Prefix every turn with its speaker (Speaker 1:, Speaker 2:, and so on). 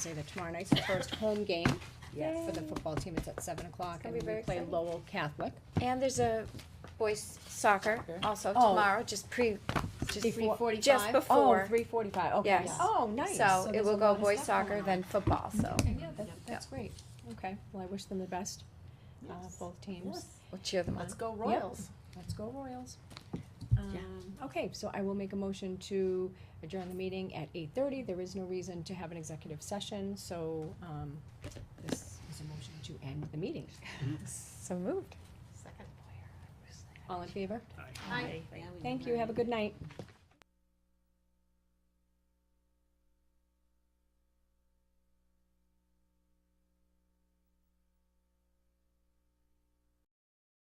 Speaker 1: say that tomorrow night's the first home game
Speaker 2: Yes.
Speaker 1: for the football team. It's at seven o'clock
Speaker 2: It's
Speaker 1: and
Speaker 2: gonna
Speaker 1: we
Speaker 2: be very
Speaker 1: play
Speaker 2: exciting.
Speaker 1: Lowell Catholic.
Speaker 2: And there's a boys soccer
Speaker 3: Soccer.
Speaker 2: also
Speaker 1: Oh.
Speaker 2: tomorrow, just pre, just
Speaker 1: Before-
Speaker 2: before, just
Speaker 3: Oh,
Speaker 2: before.
Speaker 3: three forty-five, okay.
Speaker 2: Yes.
Speaker 1: Oh, nice.
Speaker 2: So it
Speaker 1: there's
Speaker 2: will
Speaker 1: a
Speaker 2: go
Speaker 1: lot of
Speaker 2: boys
Speaker 1: stuff
Speaker 2: soccer,
Speaker 1: going
Speaker 2: then football, so
Speaker 1: on. Okay, yeah, that, that's great. Okay, well, I wish them the best, uh, both teams.
Speaker 2: we'll cheer them on.
Speaker 3: Let's go Royals.
Speaker 1: Let's go Royals. Um, Okay, so I will make a motion to adjourn the meeting at eight thirty. There is no reason to have an executive session, so, um, this is a motion to end the meeting.
Speaker 2: So moved.
Speaker 1: All in favor?
Speaker 4: Hi.
Speaker 1: Thank you, have a good night.